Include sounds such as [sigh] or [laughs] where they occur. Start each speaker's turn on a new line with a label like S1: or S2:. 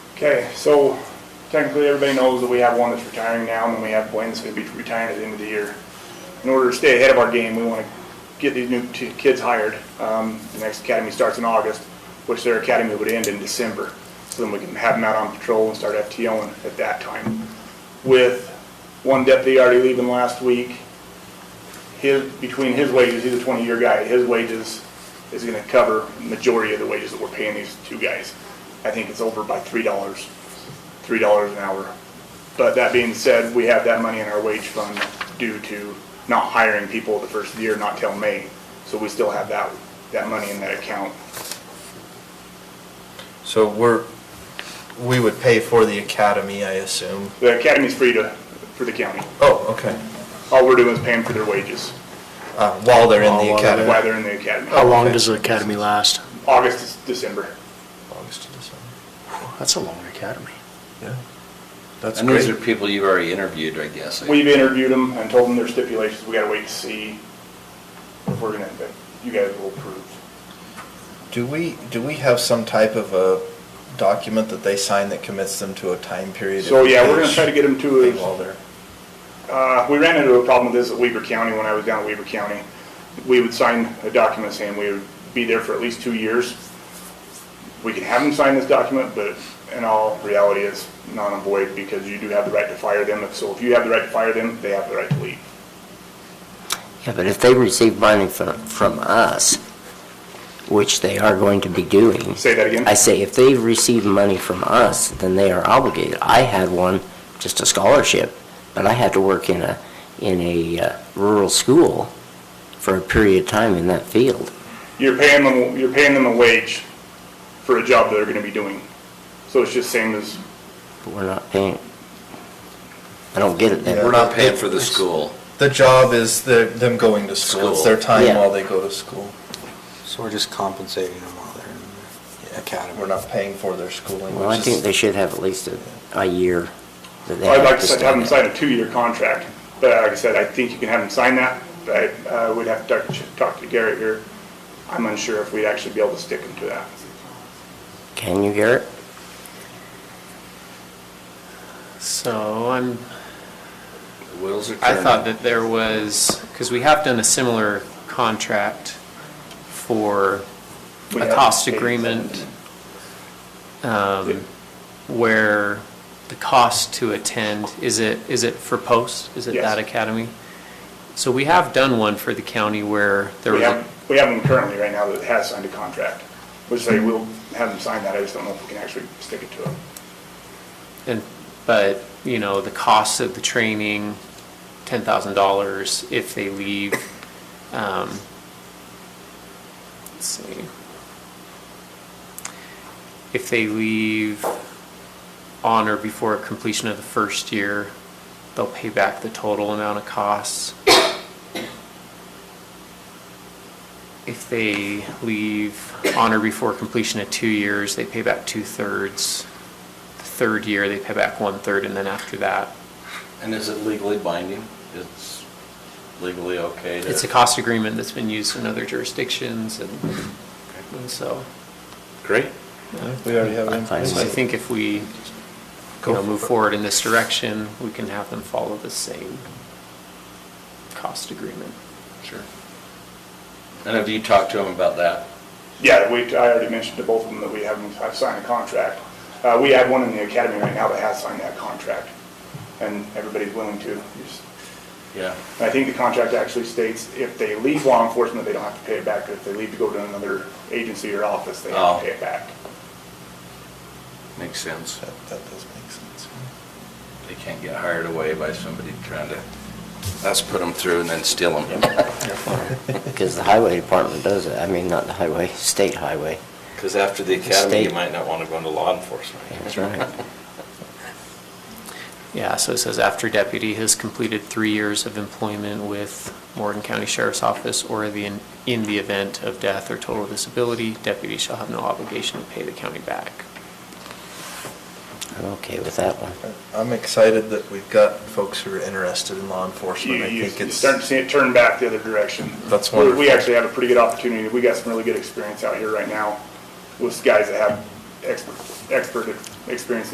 S1: Okay, so technically, everybody knows that we have one that's retiring now, and then we have one that's gonna be retiring at the end of the year. In order to stay ahead of our game, we wanna get these new t- kids hired. Um, the next academy starts in August, which their academy would end in December. So then we can have them out on patrol and start FTOing at that time. With one deputy already leaving last week, his, between his wages, he's a twenty-year guy, his wages is gonna cover majority of the wages that we're paying these two guys. I think it's over by three dollars, three dollars an hour. But that being said, we have that money in our wage fund due to not hiring people the first year, not till May. So we still have that, that money in that account.
S2: So we're, we would pay for the academy, I assume.
S1: The academy's free to, for the county.
S2: Oh, okay.
S1: All we're doing is paying for their wages
S2: Uh, While they're in the
S3: While they're-
S2: academy.
S1: while they're in the academy.
S3: How long does the academy last?
S1: August, to December.
S2: August to December.
S3: That's a long academy.
S2: Yeah. That's
S4: And these are
S2: great.
S4: people you've already interviewed, I guess.
S1: We've interviewed them and told them their stipulations. We gotta wait to see if we're gonna, if you guys will approve.
S2: Do we, do we have some type of a document that they sign that commits them to a time period?
S1: So, yeah, we're gonna try to get them to a-
S2: Thing While they're,
S1: Uh, we ran into a problem with this at Weaver County when I was down at Weaver County. We would sign a document saying we would be there for at least two years. We can have them sign this document, but in all reality, it's non and void because you do have the right to fire them. If- So if you have the right to fire them, they have the right to leave.
S5: Yeah, but if they receive money from, from us, which they are going to be doing,
S1: Say that again?
S5: I say if they receive money from us, then they are obligated. I had one, just a scholarship, but I had to work in a, in a uh, rural school for a period of time in that field.
S1: You're paying them, you're paying them a wage for a job they're gonna be doing. So it's just same as,
S5: But we're not paying, I don't get it
S2: Yeah.
S5: then.
S4: We're not paying for the school.
S2: the job is the, them going to school. It's
S4: School.
S2: their time
S5: Yeah.
S2: while they go to school.
S6: So we're just compensating them while they're in the academy.
S2: We're not paying for their schooling.
S5: Well, I
S2: which is-
S5: think they should have at least a, a year that they
S1: I'd
S5: have
S1: like
S5: to
S1: to have them
S5: stay.
S1: sign a two-year contract. But like I said, I think you can have them sign that, but I uh, would have to talk to- talk to Garrett here. I'm unsure if we'd actually be able to stick them to that.
S5: Can you, Garrett?
S7: So I'm,
S4: The wheels are
S7: I
S4: turning.
S7: thought that there was, because we have done a similar contract for
S1: We
S7: a
S1: have
S7: cost
S1: paid them.
S7: agreement um, where the cost to attend, is it, is it for post? Is it
S1: Yes.
S7: that academy? So we have done one for the county where there
S1: We
S7: was, a-
S1: have, we have them currently right now that has signed a contract. We'll say we'll have them sign that, I just don't know if we can actually stick it to them.
S7: and, but, you know, the cost of the training, ten thousand dollars if they leave. um, Let's see. If they leave on or before completion of the first year, they'll pay back the total amount of costs. If they leave on or before completion of two years, they pay back two-thirds. The third year, they pay back one-third, and then after that,
S4: And is it legally binding? It's legally okay to?
S7: It's a cost agreement that's been used in other jurisdictions and, and so.
S4: Great.
S2: Yeah, We already have.
S5: I find
S2: it.
S7: So I think if we, you know, move forward in this direction, we can have them follow the same cost agreement.
S4: Sure. And have you talked to them about that?
S1: Yeah, we, I already mentioned to both of them that we have them, have signed a contract. Uh, we have one in the academy right now that has signed that contract, and everybody's willing to. You just-
S4: Yeah.
S1: I think the contract actually states if they leave law enforcement, they don't have to pay it back, but if they leave to go to another agency or office, they have
S4: Oh.
S1: to pay it back.
S4: Makes sense.
S2: That that does make sense.
S4: They can't get hired away by somebody trying to, us put them through and then steal them. [laughs]
S5: [laughs]
S2: [laughs]
S5: Because the highway department does it. I mean, not the highway, state highway.
S4: Because after the academy, you
S5: State.
S4: might not want to go into law enforcement.
S5: That's right.
S7: Yeah, so it says after deputy has completed three years of employment with Morgan County Sheriff's Office or the, in the event of death or total disability, deputy shall have no obligation to pay the county back.
S5: I'm okay with that one.
S2: I'm excited that we've got folks who are interested in law
S1: You,
S2: enforcement. I
S1: you
S2: think
S1: you
S2: it's,
S1: start to see it turn back the other direction.
S2: That's
S1: We- We
S2: wonderful.
S1: actually have a pretty good opportunity. We got some really good experience out here right now with guys that have expert, expert experience